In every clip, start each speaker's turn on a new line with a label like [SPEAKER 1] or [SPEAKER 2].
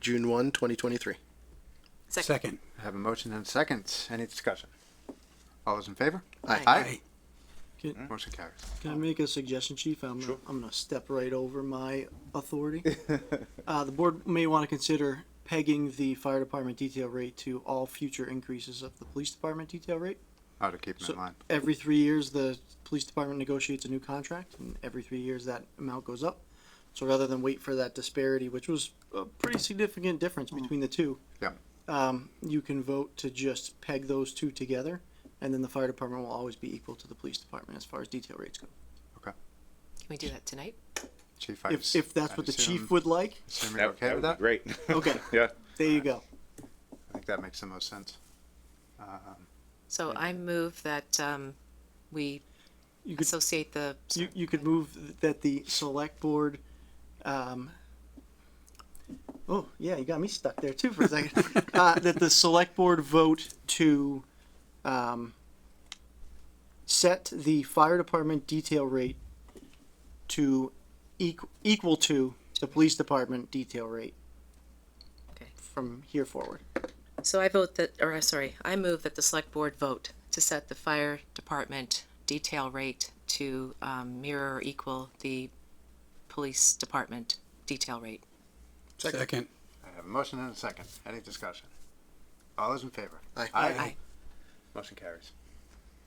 [SPEAKER 1] June 1, 2023.
[SPEAKER 2] Second.
[SPEAKER 3] Second.
[SPEAKER 4] I have a motion and seconds. Any discussion? All those in favor?
[SPEAKER 1] Aye.
[SPEAKER 5] Aye.
[SPEAKER 4] Aye. Motion carries.
[SPEAKER 5] Can I make a suggestion, Chief? I'm, gonna, I'm gonna step right over my authority. Uh, the board may want to consider pegging the fire department detail rate to all future increases of the police department detail rate.
[SPEAKER 4] Ought to keep them
[SPEAKER 5] So-
[SPEAKER 4] in line.
[SPEAKER 5] Every three years, the police department negotiates a new contract, and every three years, that amount goes up. So rather than wait for that disparity, which was a pretty significant difference between the two.
[SPEAKER 4] Yeah.
[SPEAKER 5] Um, you can vote to just peg those two together, and then the fire department will always be equal to the police department as far as detail rates go.
[SPEAKER 2] Can we do that tonight?
[SPEAKER 4] Chief, I
[SPEAKER 5] If,
[SPEAKER 4] just-
[SPEAKER 5] if that's
[SPEAKER 4] I
[SPEAKER 5] what the
[SPEAKER 4] assume-
[SPEAKER 5] chief would like,
[SPEAKER 4] Assume you're okay with
[SPEAKER 6] would
[SPEAKER 4] that?
[SPEAKER 6] be Great.
[SPEAKER 5] Okay.
[SPEAKER 6] Yeah.
[SPEAKER 5] there you go.
[SPEAKER 4] I think that makes the most sense. Um,
[SPEAKER 2] So I move that um, we
[SPEAKER 5] You could,
[SPEAKER 2] associate the.
[SPEAKER 5] you, you could move that the select board, um, oh, yeah, you got me stuck there too for a second. Uh, that the select board vote to, um, set the fire department detail rate to equal, equal to the police department detail rate
[SPEAKER 2] Okay.
[SPEAKER 5] from here forward.
[SPEAKER 2] So I vote that, or uh, sorry, I move that the select board vote to set the fire department detail rate to um, mirror or equal the police department detail rate.
[SPEAKER 3] Second.
[SPEAKER 4] I have a motion and a second. Any discussion? All those in favor?
[SPEAKER 1] Aye.
[SPEAKER 2] Aye.
[SPEAKER 4] Motion carries.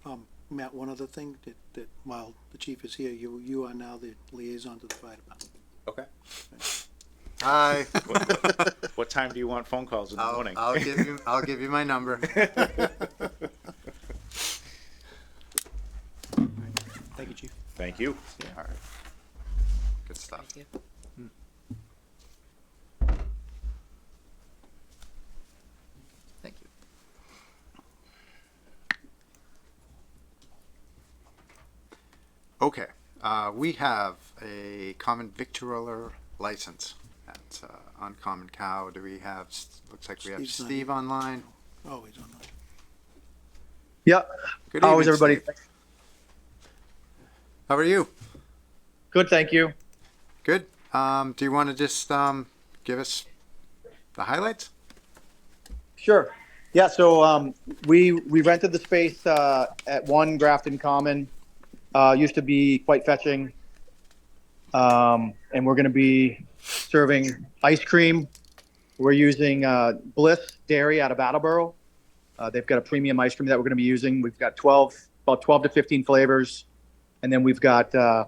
[SPEAKER 7] Um, Matt, one other thing that, that while the chief is here, you, you are now the liaison to the fire department.
[SPEAKER 4] Okay. Aye.
[SPEAKER 6] What time do you want phone calls in the
[SPEAKER 4] I'll,
[SPEAKER 6] morning?
[SPEAKER 4] I'll give you, I'll give you my number.
[SPEAKER 5] Thank you, chief.
[SPEAKER 6] Thank you.
[SPEAKER 4] All right. Good stuff.
[SPEAKER 2] Thank you.
[SPEAKER 5] Thank you.
[SPEAKER 4] Okay, uh, we have a common victualler license at, uh, Uncommon Cow. Do we have, looks like we have
[SPEAKER 7] Steve's not
[SPEAKER 4] Steve online.
[SPEAKER 7] Oh, he's on the
[SPEAKER 8] Yeah.
[SPEAKER 4] Good
[SPEAKER 8] How is
[SPEAKER 4] evening,
[SPEAKER 8] everybody?
[SPEAKER 4] Steve. How are you?
[SPEAKER 8] Good, thank you.
[SPEAKER 4] Good. Um, do you want to just, um, give us the highlights?
[SPEAKER 8] Sure. Yeah, so um, we we rented the space uh, at one Grafton Common. Uh, used to be quite fetching, um, and we're going to be serving ice cream. We're using uh, Bliss Dairy out of Attleboro. Uh, they've got a premium ice cream that we're going to be using. We've got twelve, about twelve to fifteen flavors, and then we've got uh,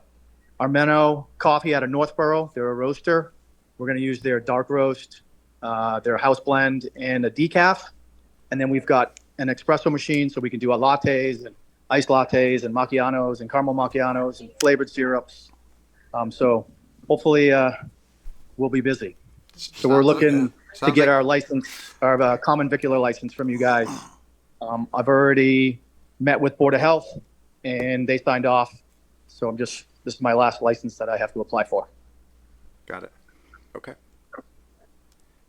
[SPEAKER 8] Armeno Coffee out of Northborough. They're a roaster. We're going to use their dark roast. uh, their house blend and a decaf. And then we've got an espresso machine so we can do our lattes and iced lattes and macchiatos and caramel macchiatos and flavored syrups. Um, so hopefully uh, we'll be busy. So we're
[SPEAKER 4] Sounds like-
[SPEAKER 8] looking to
[SPEAKER 4] sounds
[SPEAKER 8] get
[SPEAKER 4] like-
[SPEAKER 8] our license, our uh, common vicular license from you guys. Um, I've already met with Board of Health and they signed off. So I'm just, this is my last license that I have to apply for.
[SPEAKER 4] Got it. Okay.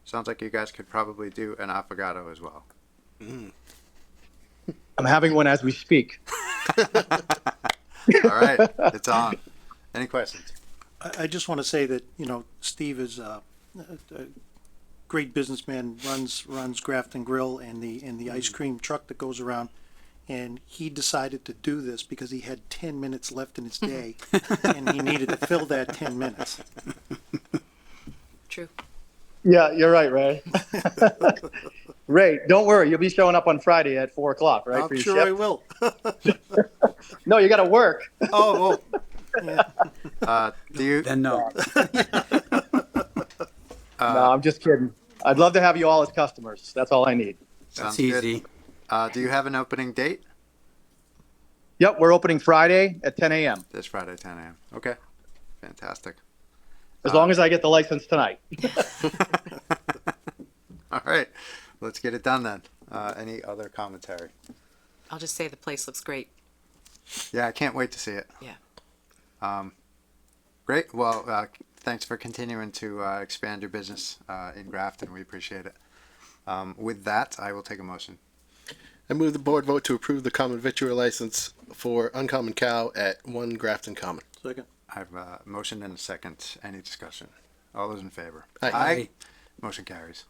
[SPEAKER 4] Sounds like you guys could probably do an affogato as well.
[SPEAKER 8] I'm having one as we speak.
[SPEAKER 4] All right, it's on. Any questions?
[SPEAKER 7] I, I just want to say that, you know, Steve is a, a, a great businessman, runs, runs Grafton Grill and the, and the ice cream truck that goes around. And he decided to do this because he had ten minutes left in his day and he needed to fill that ten minutes.
[SPEAKER 2] True.
[SPEAKER 8] Yeah, you're right, Ray. Ray, don't worry. You'll be showing up on Friday at four o'clock, right? for
[SPEAKER 7] I'm
[SPEAKER 8] your
[SPEAKER 7] sure
[SPEAKER 8] shift?
[SPEAKER 7] I will.
[SPEAKER 8] No, you got to work.
[SPEAKER 7] Oh, oh,
[SPEAKER 4] Uh, do you,
[SPEAKER 3] Then no.
[SPEAKER 7] Uh.
[SPEAKER 8] no, I'm just kidding. I'd love to have you all as customers. That's all I need.
[SPEAKER 4] sounds
[SPEAKER 3] That's
[SPEAKER 4] good.
[SPEAKER 3] easy.
[SPEAKER 4] Uh, do you have an opening date?
[SPEAKER 8] Yep, we're opening Friday at 10 a.m.
[SPEAKER 4] This Friday, ten AM. Okay, fantastic.
[SPEAKER 8] As
[SPEAKER 7] Uh.
[SPEAKER 8] long as I get the license tonight.
[SPEAKER 4] All right, let's get it done then. Uh, any other commentary?
[SPEAKER 2] I'll just say the place looks great.
[SPEAKER 4] Yeah, I can't wait to see it.
[SPEAKER 2] Yeah.
[SPEAKER 4] Um, great. Well, uh, thanks for continuing to uh, expand your business uh, in Grafton. We appreciate it. Um, with that, I will take a motion.
[SPEAKER 1] I move the board vote to approve the common victual license for Uncommon Cow at 1 Grafton Common.
[SPEAKER 7] second.
[SPEAKER 4] I have a motion and a second. Any discussion? All those in favor?
[SPEAKER 1] Aye.
[SPEAKER 4] Motion carries.